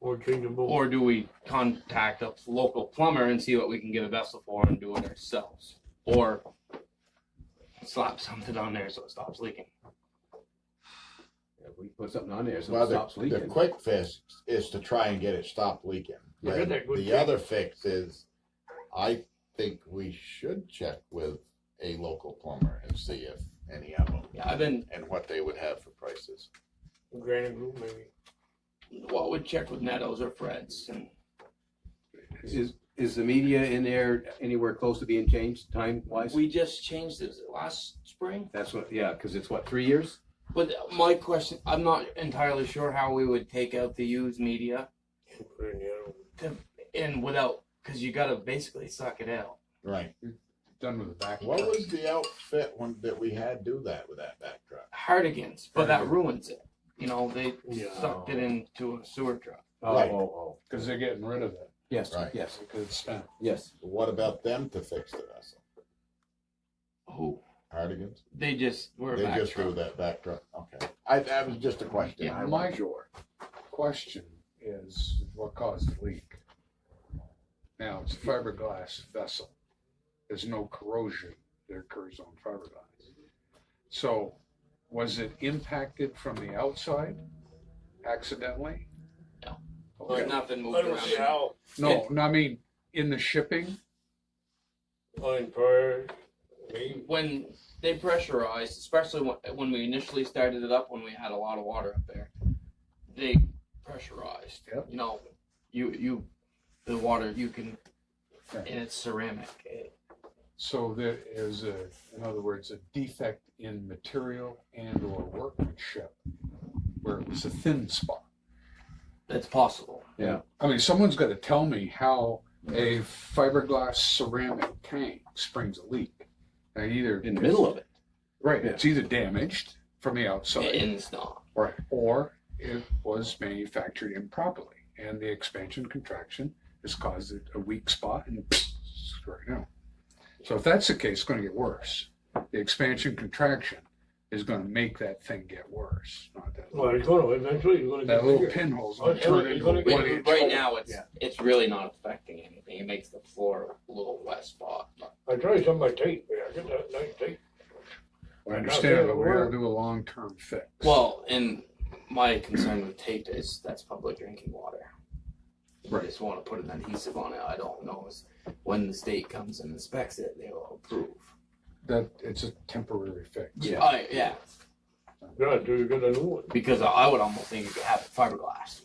Or change them both. Or do we contact a local plumber and see what we can get a vessel for and do it ourselves? Or slap something on there so it stops leaking. If we put something on there, so Well, it the, stops the leaking. quick fix is to try and get it stopped leaking. Yeah, And they're good The fix. other fix is, I think we should check with a local plumber and see if any of them. Yeah, I've been, And what they would have for prices. Granite group maybe. well, would check with Meadows or Fred's and Is, is the media in there anywhere close to being changed time wise? we just changed this last spring. That's what, yeah, cause it's what, three years? But my question, I'm not entirely sure how we would take out the used media and put in the other one. and without, because you gotta basically suck it out. Right. Done with the back. What was the outfit one that we had do that with that back truck? Hardigans, but that ruins it. You know, they Yeah. sucked it into a sewer truck. Oh, Right. oh, oh, Because they're getting rid of it. yes, Right. yes, Because it's spent. yes. What about them to fix the vessel? Oh, Hardigan's? they just were a They back just do truck. that back truck, okay. I, that was just a question. Yeah, I my- wasn't sure. Question is, what caused the leak? Now, it's a fiberglass vessel. There's no corrosion that occurs on fiberglass. So was it impacted from the outside accidentally? No. Okay. Like nothing moved I don't see around. how No, no, I mean, in the shipping, on prior maybe When they pressurized, especially when, when we initially started it up, when we had a lot of water up there, they pressurized. Yep. You know, you, you, the water, you can, Yeah. and it's ceramic. It- so there is a, in other words, a defect in material and or workmanship where it was a thin spot. It's possible. I mean, someone's got to tell me how a fiberglass ceramic tank springs a leak. And either In the middle of it. right, it's either damaged from the And outside, it's not. right, or it was manufactured improperly, and the expansion contraction has caused it a weak spot and right now. So if that's the case, it's going to get worse. The expansion contraction is going to make that thing get worse. Not that well it's gonna eventually it's gonna get that little bigger. pinhole's Oh, going it's to gonna- turn it's into gonna a get- one Right, inch. right now, it's Yeah. it's really not affecting anything. It makes the floor a little wet spot. I tried some of my tape, man. I got that nice tape. I understand, but we got to do a long term fix. Well, and my concern with tape is that's public drinking water. I Right. just want to put an adhesive on it. I don't know is when the state comes and inspects it, they will approve. that it's a temporary fix. Yeah. I, yeah. Yeah, until you get a new one. Because I would almost think you could have it fiberglass.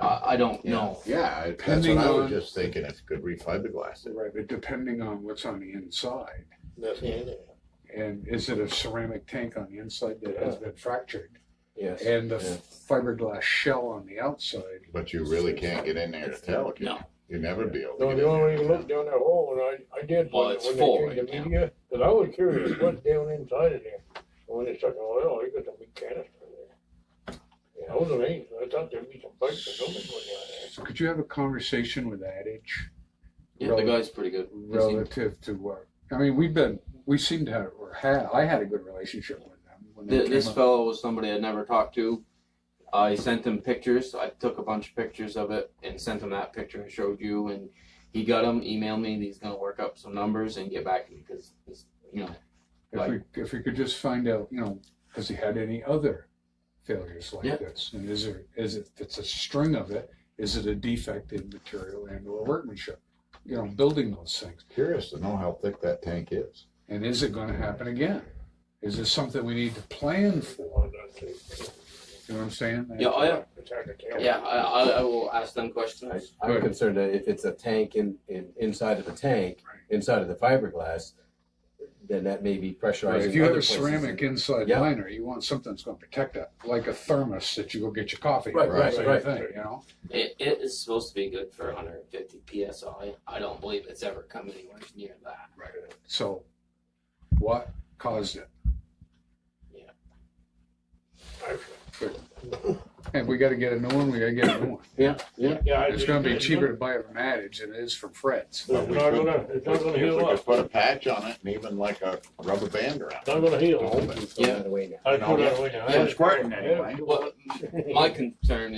I, I don't know. Yeah, I- that's Depending what I was on- just thinking, if you could refiberglass it. Right, but depending on what's on the inside, That's the end of it. and is it a ceramic tank on the inside that has been fractured, Yes. and the Yeah. fiberglass shell on the outside? But you really can't get in there to tell, can you? No. You'd never be able to No, get the only way you in can there. look down that hole, and I, I did Well, when, it's when full they changed right the now. media, because I was curious what's down inside of there. And when they stuck an oil, they got a big canister in there. Yeah, I was amazed. I thought there'd be some pipes or something going down there. So could you have a conversation with Adage Yeah, the guy's pretty good. relative to what? I mean, we've been, we seem to have, or had, I had a good relationship with them. when they Th- came this up. fellow was somebody I'd never talked to. I sent him pictures. I took a bunch of pictures of it and sent him that picture I showed you. And he got them, emailed me, and he's going to work up some numbers and get back to me because, you know, If we, if we could just find out, you know, has he had any other failures Yeah. like this? And is there, is it, if it's a string of it, is it a defect in material and or workmanship? You know, building those things. Curious to know how thick that tank is. And is it gonna happen again? Is this something we need to plan for? You know what I'm saying? yeah, I, It's hard to tell. yeah, I, I, I will ask them I, questions. I'm concerned that if it's a tank in, in, inside of the tank, inside of the fiberglass, then that may be Right, pressurizing. If you have other a places. ceramic inside Yeah. liner, you want something that's gonna protect it, like a thermos that you go get your coffee. in, Right, right, same right. thing, You know? It, it is supposed to be good for 150 psi. I don't believe it's ever come anywhere near that. So what caused it? And we gotta get a new one, we gotta get a new one. Yeah, I It's just- gonna be cheaper to buy it from Adage than it is from Fred's. It's not gonna, it's not gonna If we heal could up. put a patch on it and even like a rubber band around It's it. not gonna heal. It's going away now. I put it away. From squirting anyway. What my concern